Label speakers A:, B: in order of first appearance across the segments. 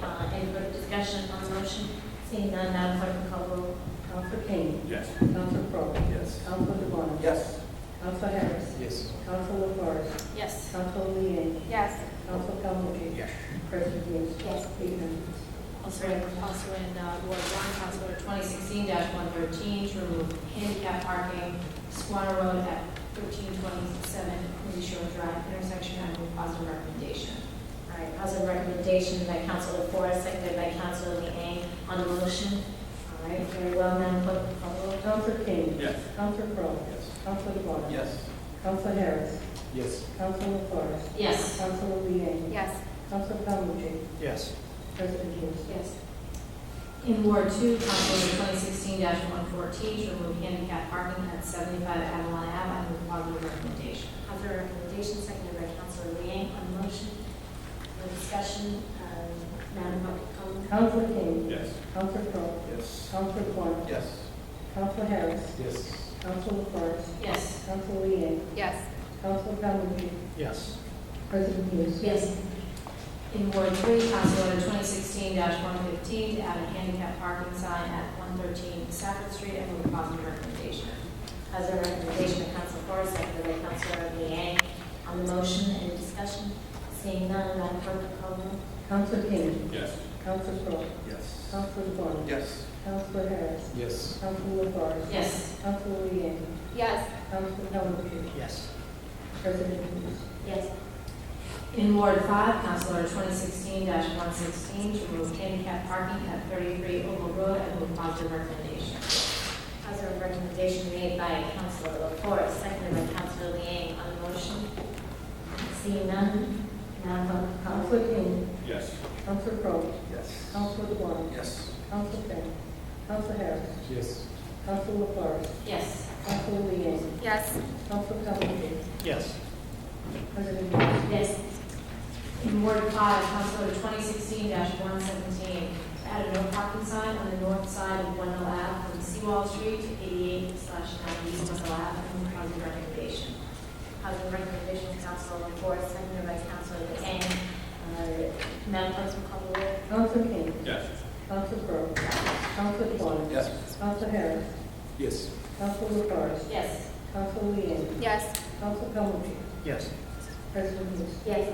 A: uh, Seeing none, Madam Clerk, will call the roll.
B: Council Kane.
C: Yes.
B: Council Crowe.
C: Yes.
B: Council DeBon.
D: Yes.
B: Council Harris.
D: Yes.
B: Council LaFars.
A: Yes.
B: Council Leeang.
A: Yes.
B: Council Calhoun.
D: Yes.
B: President Hughes.
A: Yes.
B: Eight members.
A: Also in, also in uh, Ward One, House Order twenty sixteen one thirteen, to remove handicap parking, Squatter Road at thirteen twenty-seven, Quincy Shore Drive intersection, I move positive recommendation.
E: All right, positive recommendation by Council LaFors, seconded by Council Liang on the motion. All right, very well, Madam Clerk, call the roll.
B: Council Kane.
C: Yes.
B: Council Crowe.
D: Yes.
B: Council DeBon.
D: Yes.
B: Council Harris.
D: Yes.
B: Council LaFars.
E: Yes.
B: Council Leeang.
A: Yes.
B: Council Calhoun.
D: Yes.
B: President Hughes.
A: Yes.
E: In Ward Two, Council Order twenty sixteen one fourteen, to remove handicap parking at seventy-five Avalon Ave, I move positive recommendation.
A: Positive recommendation, seconded by Councilor Liang on the motion. No discussion, uh, Madam Clerk, call the-
B: Council Kane.
C: Yes.
B: Council Crowe.
D: Yes.
B: Council DeBon.
D: Yes.
B: Council Harris.
D: Yes.
B: Council LaFars.
E: Yes.
B: Council Leeang.
A: Yes.
B: Council Calhoun.
D: Yes.
B: President Hughes.
E: Yes. In Ward Three, Council Order twenty sixteen one fifteen, to add a handicap parking sign at one thirteen Stafford Street, I move positive recommendation.
A: Positive recommendation by Council LaFars, seconded by Councilor Liang on the motion. Any discussion? Seeing none, Madam Clerk, call the roll.
B: Council Kane.
C: Yes.
B: Council Crowe.
D: Yes.
B: Council DeBon.
D: Yes.
B: Council Harris.
D: Yes.
B: Council LaFars.
E: Yes.
B: Council Leeang.
A: Yes.
B: Council Calhoun.
D: Yes.
B: President Hughes.
A: Yes.
E: In Ward Five, Council Order twenty sixteen one sixteen, to remove handicap parking at thirty-three Oval Road, I move positive recommendation.
A: Positive recommendation made by Councilor LaFors, seconded by Councilor Liang on the motion. Seeing none, Madam Clerk, call the roll.
B: Council Kane.
C: Yes.
B: Council Crowe.
D: Yes.
B: Council DeBon.
D: Yes.
B: Council Finn. Council Harris.
D: Yes.
B: Council LaFars.
E: Yes.
B: Council Leeang.
A: Yes.
B: Council Calhoun.
D: Yes.
B: President Hughes.
E: Yes. In Ward Five, Council Order twenty sixteen one seventeen, to add a no parking sign on the north side of Wendell Ave from Seawall Street to eighty-eight slash ninety Wendell Ave, I move positive recommendation.
A: Positive recommendation, Councilor LaFors, seconded by Councilor Liang. Uh, Madam Clerk, call the roll.
B: Council Kane.
C: Yes.
B: Council Crowe. Council DeBon.
D: Yes.
B: Council Harris.
D: Yes.
B: Council LaFars.
E: Yes.
B: Council Leeang.
A: Yes.
B: Council Calhoun.
D: Yes.
B: President Hughes.
A: Yes.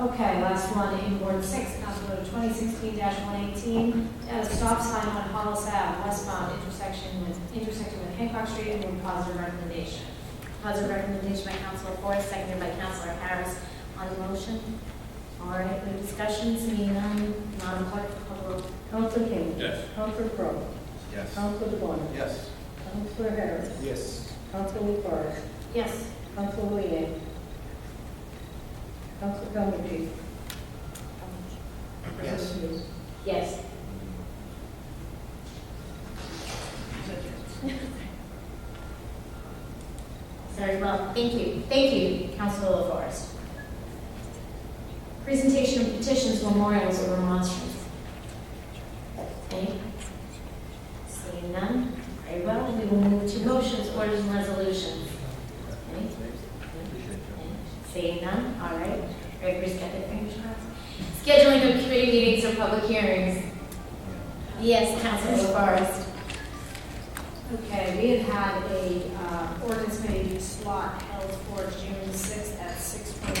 E: Okay, last one, in Ward Six, Council Order twenty sixteen one eighteen, to add a stop sign on Hollis Ave westbound intersection with, intersecting with Hancock Street, I move positive recommendation.
A: Positive recommendation by Councilor Forrest, seconded by Councilor Harris on the motion. All right, no discussion, seeing none, Madam Clerk, call the roll.
B: Council Kane.
C: Yes.
B: Council Crowe.
D: Yes.
B: Council DeBon.
D: Yes.
B: Council Harris.
D: Yes.
B: Council LaFars.
E: Yes.
B: Council Leeang. Council Calhoun.
D: Yes.
B: President Hughes.
A: Yes.
E: Very well, thank you. Thank you, Councilor LaForest. Presentation of petitions, memorials, or remonstrance. Any? Seeing none, very well, we will move to motions, orders, and resolutions. Any? Seeing none, all right. Very brisk, get the fingers crossed. Scheduling of committee meetings or public hearings. Yes, Councilor LaForest. Okay, we had had a uh, ordinance committee slot held for June 6th at 6:25.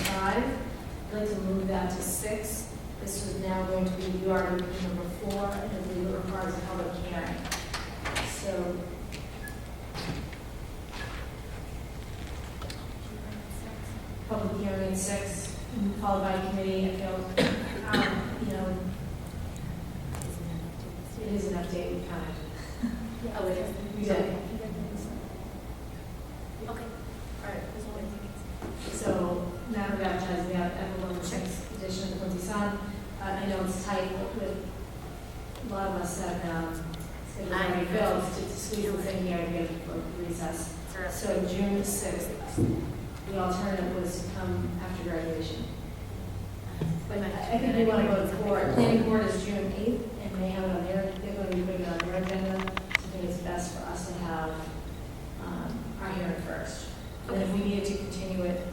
E: I'd like to move that to 6. This is now going to be URB number 4, and I believe it requires a public hearing. So... Public hearing at 6, followed by committee, I feel, um, you know, it is an update, we kind of
A: Oh, it is.
E: we did.
A: Okay. All right, this one.
E: So now we're baptized, we have Evelyn Chick's edition of Quincy Sun. Uh, I know it's tight, but a lot of us have, um,
A: I
E: already
A: know.
E: filled to to squeeze this in here and get a recess. So June sixth, the alternative was to come after graduation. But I I think we want to go to board. Planning board is June eighth, and they have it on their, they're going to be putting it on their agenda. So I think it's best for us to have um, our hearing first. And if we needed to continue it